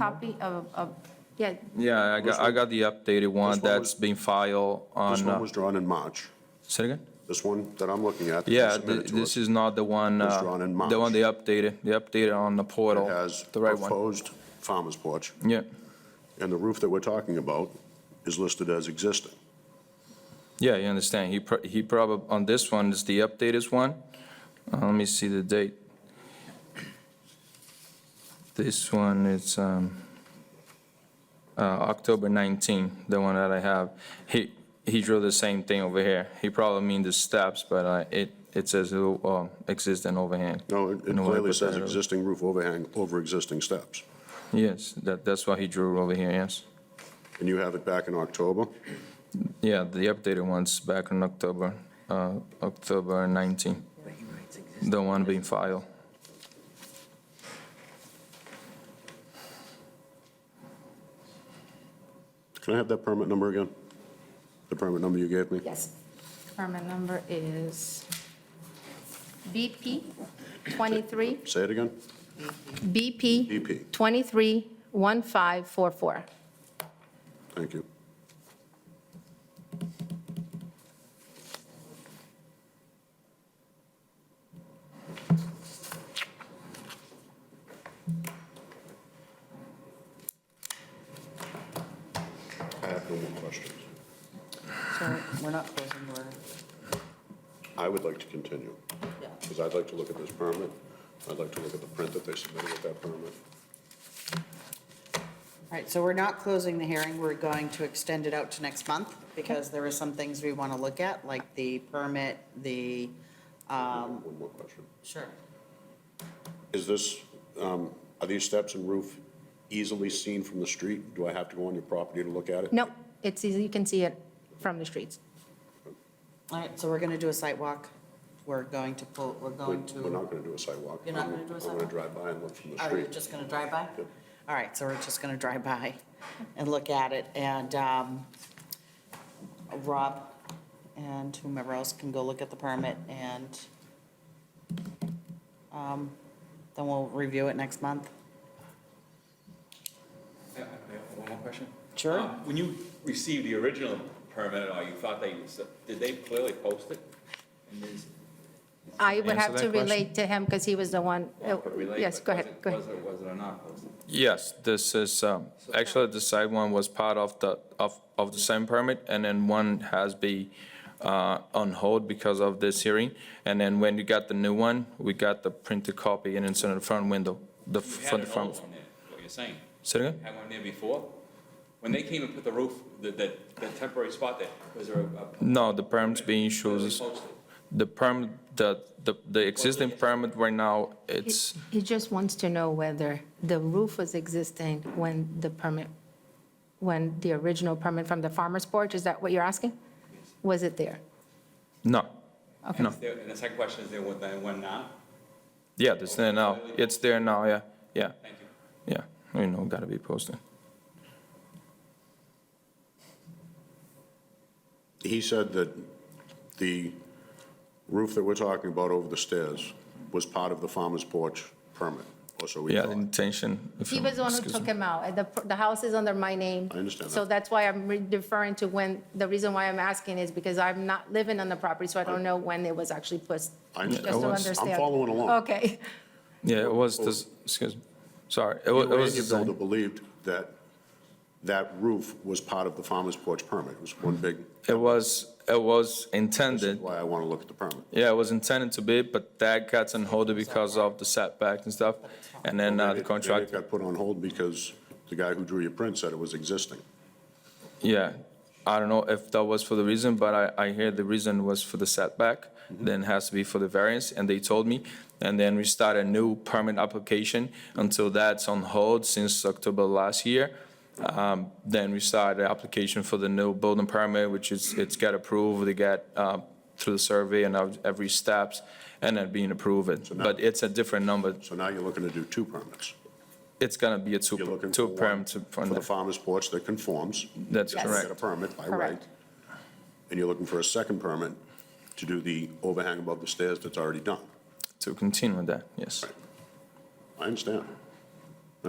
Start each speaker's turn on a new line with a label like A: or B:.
A: copy of, of, yeah,
B: Yeah, I got, I got the updated one
C: This one
B: that's
C: was-
B: been filed
C: This
B: on,
C: one
B: uh,
C: was drawn in March.
B: say it again?
C: This one that I'm looking at. that you
B: Yeah,
C: submitted
B: thi-
C: to
B: this
C: us,
B: is not the one,
C: was
B: uh,
C: drawn in
B: the one
C: March.
B: they updated, they updated on the
C: It
B: portal,
C: has
B: the right one.
C: proposed farmer's porch,
B: Yeah,
C: and the roof that we're talking about is listed as existing.
B: yeah, you understand, he, pro- he probably, on this one is the updated one. Uh, Let me see the date. This one is, um, uh, October 19, the one that I have. He, he drew the same thing over here. He probably mean the steps, but uh, it, it says it'll, uh, existing overhang.
C: No, it it
B: And why
C: clearly
B: put
C: says
B: that over-
C: existing roof overhang over existing steps.
B: Yes, that, that's what he drew over here, yes.
C: And you have it back in October.
B: Yeah, the updated one's back in October, uh, October 19, the one being filed.
C: Can I have that permit number again? The permit number you gave me?
A: yes. Permit number is BP 23,
C: Say it again?
A: BP
C: BP.
A: 231544.
C: Thank you. I have no more questions.
D: So we're not closing, we're,
C: I would like to continue, because I'd like to look at this permit. I'd like to look at the print that they submitted with that permit.
D: all right, so we're not closing the hearing, we're going to extend it out to next month, because there are some things we want to look at, like the permit, the.
C: One more question.
D: Sure.
C: Is this, um, are these steps and roof easily seen from the street? Do I have to go on your property to look at it?
A: No, it's easy, you can see it from the streets.
D: All right, so we're gonna do a site walk, we're going to pull, we're
C: We're
D: going to.
C: we're not going to do a sidewalk.
D: You're not gonna do a
C: I'm going
D: sidewalk?
C: to drive by and look from the
D: Oh, you're
C: street.
D: just gonna drive by?
C: Yep.
D: All right, so we're just gonna drive by and look at it, and, um, Rob and whomever else can go look at the permit, and, um, then we'll review it next month.
E: I- I have One more question?
D: Sure.
E: Uh, When you received the original permit, or you thought they, did they clearly post it? And is-
A: I would
B: Answer
A: have
B: that
A: to
B: question.
A: relate to him because he was the one, uh,
E: Relate,
A: yes,
E: but
A: go
E: was
A: ahead,
E: it-
A: go ahead.
E: Was it, was it or not posted?
B: Yes, this is, um, actually, the side one was part of the, of, of the same permit, and then one has be uh, on hold because of this hearing. And then when you got the new one, we got the printed copy and it's in the front window, the,
E: You had
B: front
E: an
B: front.
E: old one there, what you're saying.
B: Say it
E: You
B: again?
E: Had one there before? When they came and put the roof, the, the the temporary spot there, was there a? a-
B: No, the permit's being issued,
E: clearly
B: is-
E: posted?
B: the permit, the, the, the existing permit right now, it's,
A: He just wants to know whether the roof was existing when the permit, when the original permit from the farmer's porch, is that what you're asking? Was it there?
B: no,
A: Okay.
B: no.
E: There- And the second question is, there one, there one now?
B: Yeah, it's there now, it's there now, yeah, yeah,
E: Thank you.
B: yeah, you know, gotta be posted.
C: He said that the roof that we're talking about over the stairs was part of the farmer's porch permit, or so we
B: Yeah, the
C: thought.
B: intention. if
A: He
B: you-
A: was the one who
B: excuse
A: took
B: me.
A: him out. The, the house is under my name.
C: I understand
A: So
C: that.
A: that's why I'm re- referring to when, the reason why I'm asking is because I'm not living on the property, so I don't know when it was actually pushed.
C: I
A: Just
C: understand.
A: to
B: I was- I'm
A: understand.
C: following along.
A: Okay.
B: Yeah, it was, this- excuse, me. sorry, it wa- it
C: The
B: was,
C: Randy builder
B: designed-
C: believed that that roof was part of the farmer's porch permit. It was one big,
B: it was, it was intended,
C: why I want to look at the permit.
B: yeah, it was intended to be, but that got on hold because of the setback and stuff. And then uh,
C: Maybe
B: the
C: it-
B: contract,
C: Maybe it got put on hold because the guy who drew your print said it was existing.
B: yeah, I don't know if that was for the reason, but I, I hear the reason was for the setback,
C: Mm-hmm.
B: then it has to be for the variance, and they told me. And then we start a new permit application until that's on hold since October last year. Um, Then we started the application for the new building permit, which is, it's got approved, they got uh, through the survey and of every steps, and then being approved. But it's a different number.
C: So now you're looking to do two permits.
B: It's gonna be a two,
C: You're looking
B: two
C: for
B: perm
C: one
B: to,
C: For the farmer's porch that conforms.
B: that's
A: Yes.
C: You Get
B: correct.
C: a permit by right.
A: Correct.
C: And you're looking for a second permit to do the overhang above the stairs that's already done.
B: To continue with that, yes.
C: I understand.